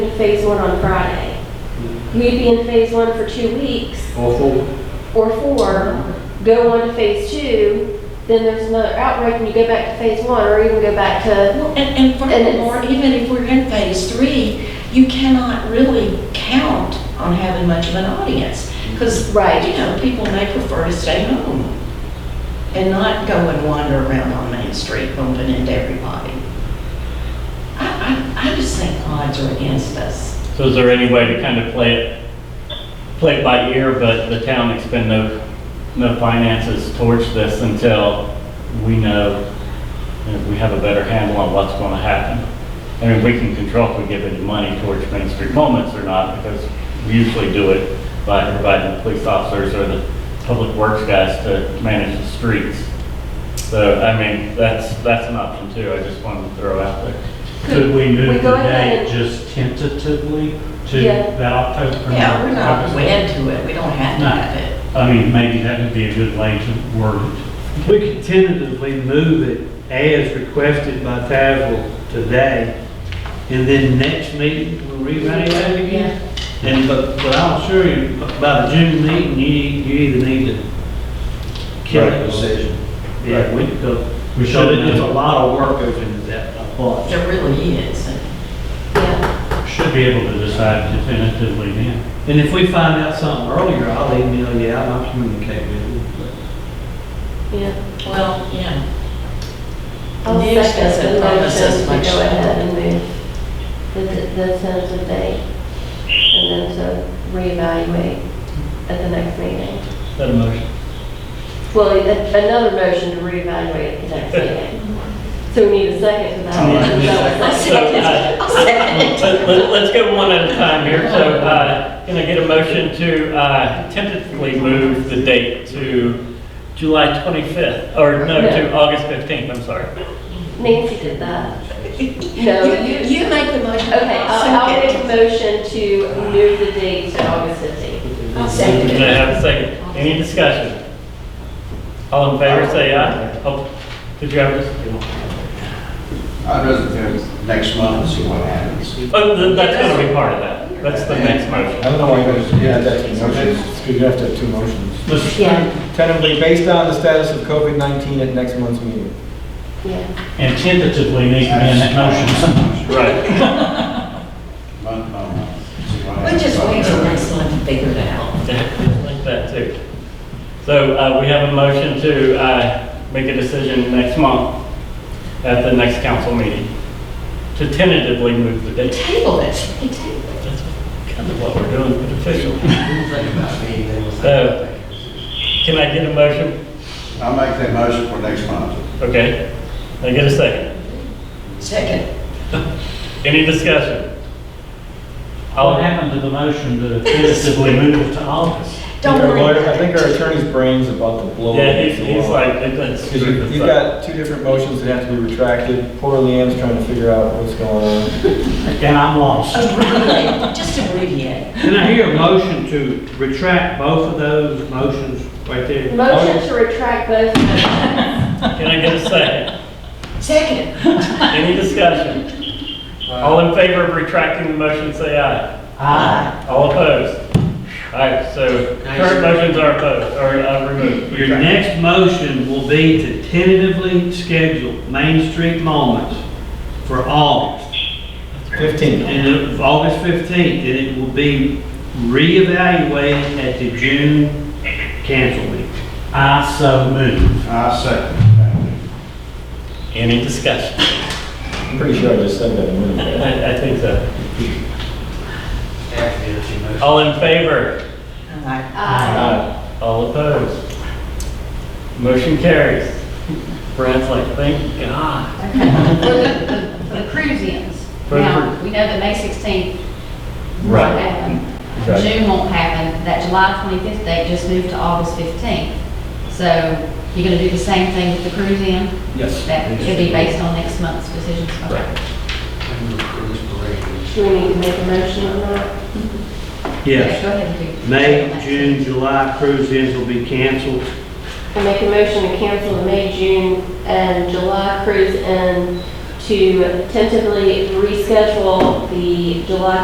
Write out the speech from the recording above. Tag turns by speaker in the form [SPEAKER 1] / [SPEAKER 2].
[SPEAKER 1] in phase one on Friday. We'd be in phase one for two weeks
[SPEAKER 2] All four?
[SPEAKER 1] or four, go on to phase two, then there's another outbreak and you go back to phase one or even go back to,
[SPEAKER 3] Well, And, and furthermore, even if we're in phase three, you cannot really count on having much of an audience. Because,
[SPEAKER 1] Right.
[SPEAKER 3] you know, people may prefer to stay home and not go and wander around on Main Street bumping into everybody. I, I, I just think odds are against us.
[SPEAKER 4] So is there any way to kind of play it, play it by ear, but the town expend no, no finances towards this until we know, if we have a better handle on what's going to happen? I mean, we can control if we give any money towards Main Street Moments or not, because we usually do it by providing the police officers or the public works guys to manage the streets. So, I mean, that's, that's an option too, I just wanted to throw out there.
[SPEAKER 2] Could we
[SPEAKER 1] We
[SPEAKER 2] move
[SPEAKER 1] go
[SPEAKER 2] the
[SPEAKER 1] ahead
[SPEAKER 2] date
[SPEAKER 1] and-
[SPEAKER 2] just tentatively to
[SPEAKER 1] Yeah.
[SPEAKER 2] that October?
[SPEAKER 3] Yeah, we're not
[SPEAKER 2] August?
[SPEAKER 3] wed to it, we don't have to
[SPEAKER 2] No.
[SPEAKER 3] have it.
[SPEAKER 2] I mean, maybe that would be a good way to word it.
[SPEAKER 5] We could tentatively move it as requested by Tazewell today, and then next meeting, we'll rewrite it again. And, but, but I'll assure you, by the June meeting, you, you either need to kill it. Yeah, we, go-
[SPEAKER 2] We
[SPEAKER 5] so
[SPEAKER 2] should,
[SPEAKER 5] there's a lot of work goes into that, a bunch.
[SPEAKER 3] There really is.
[SPEAKER 1] yeah.
[SPEAKER 2] should be able to decide definitively then.
[SPEAKER 5] And if we find out something earlier, I'll email you out, and I'll communicate with you.
[SPEAKER 1] yeah.
[SPEAKER 3] Well, yeah,
[SPEAKER 1] I'll
[SPEAKER 3] News
[SPEAKER 1] second
[SPEAKER 3] doesn't
[SPEAKER 1] the
[SPEAKER 3] promise
[SPEAKER 1] motion
[SPEAKER 3] us
[SPEAKER 1] to
[SPEAKER 3] much.
[SPEAKER 1] Go ahead and move the, the tentative date and then to reevaluate at the next meeting.
[SPEAKER 4] Is that a motion?
[SPEAKER 1] Well, a- another motion to reevaluate at the next meeting. So we need a second to
[SPEAKER 4] So,
[SPEAKER 1] that.
[SPEAKER 4] uh, let- let- Let's go one at a time here. So, uh, can I get a motion to uh, tentatively move the date to July 25th? Or no, to August 15th, I'm sorry.
[SPEAKER 1] Nancy did that. No,
[SPEAKER 3] You-
[SPEAKER 1] you-
[SPEAKER 3] You make the motion.
[SPEAKER 1] Okay, I'll, I'll
[SPEAKER 3] second
[SPEAKER 1] make
[SPEAKER 3] it.
[SPEAKER 1] a motion to move the date to August 15th.
[SPEAKER 3] I'll second
[SPEAKER 4] Can I
[SPEAKER 3] it.
[SPEAKER 4] have a second? Any discussion? All in favor, say aye. Oh, Did you have this?
[SPEAKER 6] I'd rather do it next month, and see what happens.
[SPEAKER 4] Oh, th- that's going to be part of that. That's the next
[SPEAKER 7] I
[SPEAKER 4] motion.
[SPEAKER 7] don't know why, there's- yeah, that's two motions, because you have to have two motions.
[SPEAKER 1] Yeah.
[SPEAKER 7] Tentatively based on the status of COVID-19 at next month's meeting.
[SPEAKER 1] Yeah,
[SPEAKER 2] And tentatively need to be in that motion.
[SPEAKER 4] Right.
[SPEAKER 6] Month, no, month. see what
[SPEAKER 3] We'll
[SPEAKER 6] happens.
[SPEAKER 3] just wait till next month to figure it out.
[SPEAKER 4] Like that too. So uh, we have a motion to uh, make a decision next month at the next council meeting to tentatively move the date.
[SPEAKER 3] Table it, table it.
[SPEAKER 4] That's kind of what we're doing with official. So, can I get a motion?
[SPEAKER 6] I'll make that motion for next month.
[SPEAKER 4] Okay. Can I get a second?
[SPEAKER 3] Second,
[SPEAKER 4] Any discussion?
[SPEAKER 2] What
[SPEAKER 4] All,
[SPEAKER 2] happened to the motion to tentatively move it to August?
[SPEAKER 3] don't
[SPEAKER 7] Our
[SPEAKER 3] worry
[SPEAKER 7] lawyer-
[SPEAKER 3] about
[SPEAKER 7] I think our
[SPEAKER 3] it.
[SPEAKER 7] attorney's brain's about to blow.
[SPEAKER 4] yeah, he's, he's like, it's.
[SPEAKER 7] Because you- you've got two different motions that have to be retracted. Poor Leanne's trying to figure out what's going on.
[SPEAKER 2] And I'm lost.
[SPEAKER 3] Abbreviate, just abbreviate.
[SPEAKER 5] Can I hear a motion to retract both of those motions right there?
[SPEAKER 1] motion to retract both.
[SPEAKER 4] Can I get a second?
[SPEAKER 3] Second,
[SPEAKER 4] Any discussion? All in favor of retracting the motion, say aye.
[SPEAKER 2] Aye.
[SPEAKER 4] All opposed? All right, so current motions are opposed, or uh, removed.
[SPEAKER 5] Your next motion will be to tentatively schedule Main Street Moments for August,
[SPEAKER 7] 15.
[SPEAKER 5] and it- August 15th, and it will be reevaluated at the June council meeting.
[SPEAKER 2] I so move.
[SPEAKER 6] I second that.
[SPEAKER 4] Any discussion?
[SPEAKER 7] I'm pretty sure I just said that a minute ago.
[SPEAKER 4] I, I think so. All in favor?
[SPEAKER 3] Aye.
[SPEAKER 7] Uh,
[SPEAKER 4] All opposed? Motion carries. Brad's like, thank God.
[SPEAKER 8] For the, for the cruise-ins.
[SPEAKER 4] For the
[SPEAKER 8] Now, we know that May 16th won't
[SPEAKER 7] Right.
[SPEAKER 8] happen.
[SPEAKER 7] Right.
[SPEAKER 8] June won't happen. That July 25th date just moved to August 15th. So you're going to do the same thing with the cruise-in?
[SPEAKER 7] Yes.
[SPEAKER 8] That could be based on next month's decisions. Right.
[SPEAKER 1] Do we need to make a motion on that?
[SPEAKER 5] Yes,
[SPEAKER 8] Go ahead and do.
[SPEAKER 5] May, June, July cruise-ins will be canceled.
[SPEAKER 1] I make a motion to cancel the May, June, and July cruise and to tentatively reschedule the July